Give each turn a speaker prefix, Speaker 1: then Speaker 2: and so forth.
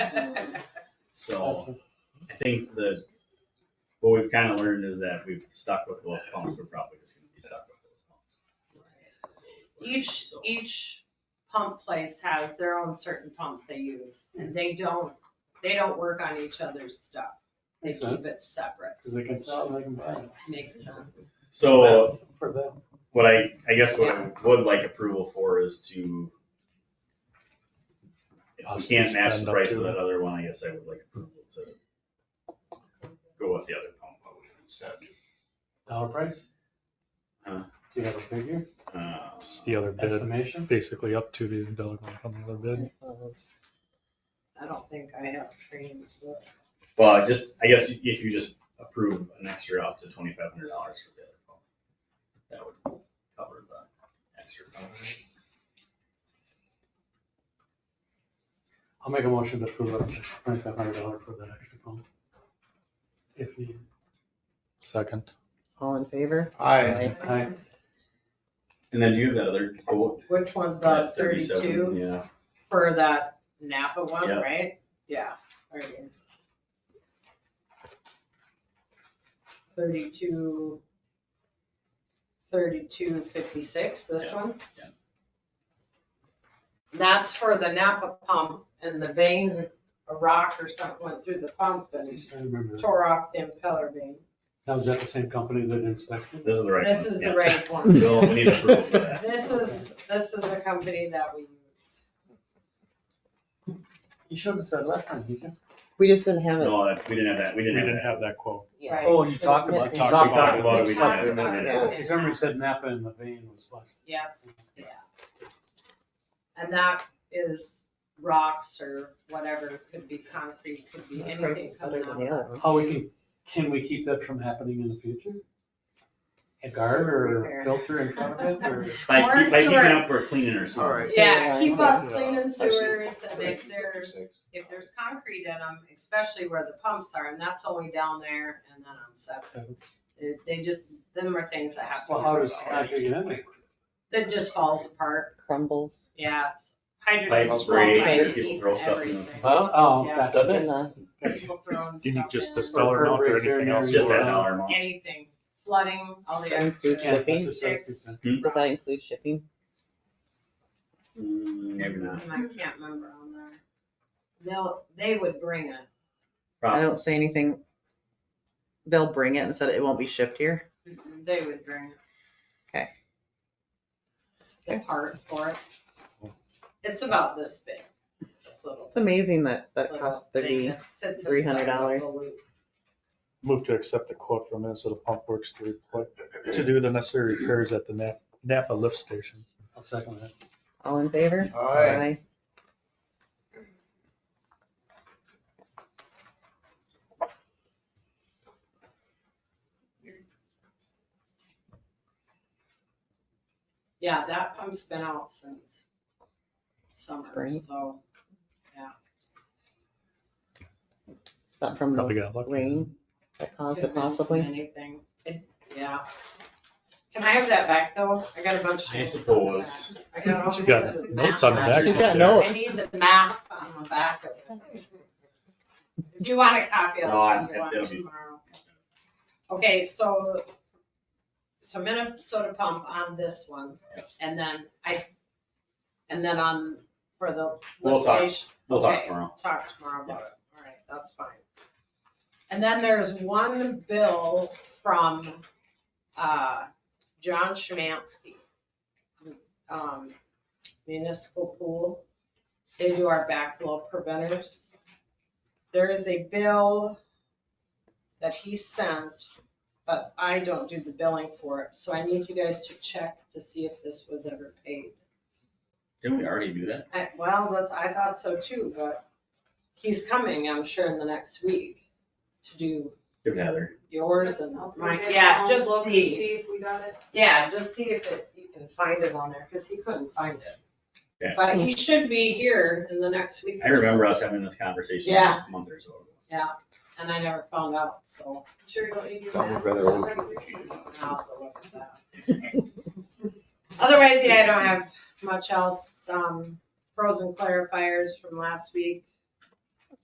Speaker 1: So I think the, what we've kind of learned is that we've stuck with those pumps, we're probably just gonna be stuck with those pumps.
Speaker 2: Each,
Speaker 1: So-
Speaker 2: each pump place has their own certain pumps they use, and they don't, they don't work on each other's stuff. They
Speaker 3: Makes
Speaker 2: keep it separate,
Speaker 3: Because they can sell it, they can buy it.
Speaker 2: makes sense.
Speaker 1: So
Speaker 3: For them.
Speaker 1: what I, I guess what I would like approval for is to, if we can't match the price of that other one, I guess I would like approval to go with the other pump instead.
Speaker 3: Dollar price?
Speaker 1: Huh?
Speaker 3: Do you have a figure,
Speaker 1: Uh,
Speaker 4: Just the other bid,
Speaker 3: estimation?
Speaker 4: basically up to the dollar amount on the other bid.
Speaker 2: I don't think I have trains with.
Speaker 1: Well, I just, I guess if you just approve an extra up to twenty-five hundred dollars for the other pump, that would cover the extra cost.
Speaker 3: I'll make a motion to approve up to twenty-five hundred dollar for that extra pump. If needed.
Speaker 4: Second.
Speaker 5: All in favor?
Speaker 4: Aye.
Speaker 3: Aye.
Speaker 1: And then you have that other quote.
Speaker 2: Which one, the
Speaker 1: at 37,
Speaker 2: thirty-two
Speaker 1: Yeah,
Speaker 2: for that Napa one,
Speaker 1: Yeah.
Speaker 2: right? Yeah. right here. Thirty-two, thirty-two fifty-six, this
Speaker 1: Yeah,
Speaker 2: one?
Speaker 1: yeah.
Speaker 2: That's for the Napa pump and the vein, a rock or something went through the pump and
Speaker 3: I remember that.
Speaker 2: tore off the impeller vein.
Speaker 3: Now, is that the same company that inspected?
Speaker 1: this is the right one.
Speaker 2: This is the
Speaker 1: yeah.
Speaker 2: right one.
Speaker 1: Bill, we need approval for that.
Speaker 2: This is, this is the company that we use.
Speaker 3: You should have said last time, didn't you?
Speaker 5: We just didn't have it.
Speaker 1: No, uh, we didn't have that, we
Speaker 4: We
Speaker 1: didn't have that.
Speaker 4: didn't have that quote.
Speaker 2: Right.
Speaker 3: Oh, you
Speaker 5: It was talked about- missing.
Speaker 1: We talked about it, we didn't have
Speaker 2: We talked
Speaker 1: that.
Speaker 5: about
Speaker 3: Because somebody said Napa and the vein was busted.
Speaker 2: Yeah. And that is rocks or whatever, could be concrete, could be
Speaker 5: The price
Speaker 2: anything
Speaker 5: is
Speaker 2: coming
Speaker 5: better than
Speaker 2: out.
Speaker 5: the other one.
Speaker 3: How we can, can we keep that from happening in the future? A guard or a filter in front of it or?
Speaker 1: By, keep- by keeping
Speaker 2: Or sewer.
Speaker 1: up, we're cleaning our
Speaker 6: All right.
Speaker 1: sewers.
Speaker 2: Yeah, keep up
Speaker 4: Yeah.
Speaker 2: cleaning
Speaker 6: see.
Speaker 2: sewers and if
Speaker 6: Right.
Speaker 2: there's,
Speaker 6: Six.
Speaker 2: if there's concrete in them, especially where the pumps are, and that's only down there and then on seven. It- They just, them are things that happen.
Speaker 3: Well, how does concrete get in there?
Speaker 2: It just falls apart,
Speaker 5: Crumbles.
Speaker 2: yeah. it's- Hydrogen
Speaker 1: Pipes
Speaker 2: is
Speaker 1: break,
Speaker 2: by
Speaker 1: people throw
Speaker 2: eats
Speaker 1: stuff in them.
Speaker 2: everything.
Speaker 6: Huh?
Speaker 3: Oh,
Speaker 2: Yeah.
Speaker 3: gotcha.
Speaker 6: Doesn't
Speaker 5: And
Speaker 6: it?
Speaker 5: the-
Speaker 2: People throwing
Speaker 4: You need
Speaker 2: stuff
Speaker 4: just
Speaker 2: in,
Speaker 4: this dollar amount or anything else?
Speaker 1: Just that
Speaker 3: Yeah.
Speaker 1: dollar amount.
Speaker 2: anything, flooding, all the
Speaker 5: Times
Speaker 2: extra.
Speaker 5: two
Speaker 3: Yeah,
Speaker 5: shipping.
Speaker 3: that's what Chelsea said.
Speaker 5: Does that include shipping?
Speaker 1: Mm, Maybe not.
Speaker 2: And I can't remember on there. They'll, they would bring it.
Speaker 5: I
Speaker 1: Probably.
Speaker 5: don't say anything. They'll bring it and said it won't be shipped here.
Speaker 2: They would bring it.
Speaker 5: Okay.
Speaker 2: The part for it. It's about this big, this little.
Speaker 5: It's amazing that that
Speaker 2: little
Speaker 5: costs
Speaker 2: thing
Speaker 5: thirty.
Speaker 2: that sits
Speaker 5: $300.
Speaker 2: inside of the loop.
Speaker 4: Move to accept the quote from Minnesota Pump Works to report, to do the necessary repairs at the Nap- Napa lift station.
Speaker 3: I'll second that.
Speaker 5: All in favor?
Speaker 6: All right.
Speaker 5: Aye.
Speaker 2: Yeah, that pump's been out since summer,
Speaker 5: Spring.
Speaker 2: so.
Speaker 5: Is that from
Speaker 4: Probably
Speaker 5: the
Speaker 4: got lucky.
Speaker 5: rain that caused
Speaker 2: couldn't
Speaker 5: it possibly?
Speaker 2: Anything, It- yeah. Can I have that back though? I got a bunch of.
Speaker 1: I
Speaker 2: names on the
Speaker 1: suppose.
Speaker 2: back. I got all
Speaker 4: She's got
Speaker 2: kinds of
Speaker 4: notes on the
Speaker 2: math
Speaker 4: back.
Speaker 5: She's got
Speaker 4: there.
Speaker 5: notes.
Speaker 2: I need the map on the back of it. If you want a copy,
Speaker 1: No, I-
Speaker 2: I'll send you one
Speaker 1: it'll be-
Speaker 2: tomorrow. Okay, so, so Minnesota pump on this one, and then I, and then on, for the.
Speaker 1: We'll talk.
Speaker 2: litigation-
Speaker 1: We'll talk
Speaker 2: Okay,
Speaker 1: tomorrow.
Speaker 2: Talk tomorrow about it, all right, that's fine. And then there's one bill from, uh, John Schmansky. Um, municipal pool, they do our backflow preventers. There is a bill that he sent, but I don't do the billing for it, so I need you guys to check to see if this was ever paid.
Speaker 1: Didn't we already do that?
Speaker 2: I, well, that's, I thought so too, but he's coming, I'm sure, in the next week to do
Speaker 1: Give it Heather.
Speaker 2: yours and
Speaker 7: I'll do
Speaker 2: mine.
Speaker 7: it.
Speaker 2: Yeah,
Speaker 7: I'll
Speaker 2: just
Speaker 7: look and
Speaker 2: see.
Speaker 7: See if we got it.
Speaker 2: Yeah, just see if it, you can find it on there, because he couldn't find
Speaker 1: Yeah.
Speaker 2: it. But he should be here in the next week.
Speaker 1: I
Speaker 2: or so,
Speaker 1: remember us having this conversation
Speaker 2: Yeah.
Speaker 1: a month or so ago.
Speaker 2: And I never found out, so
Speaker 7: Sure, don't you do
Speaker 6: Tell me
Speaker 7: that?
Speaker 6: whether we-
Speaker 2: I'll have to look at that. Otherwise, yeah, I don't have much else. Um, frozen clarifiers from last week.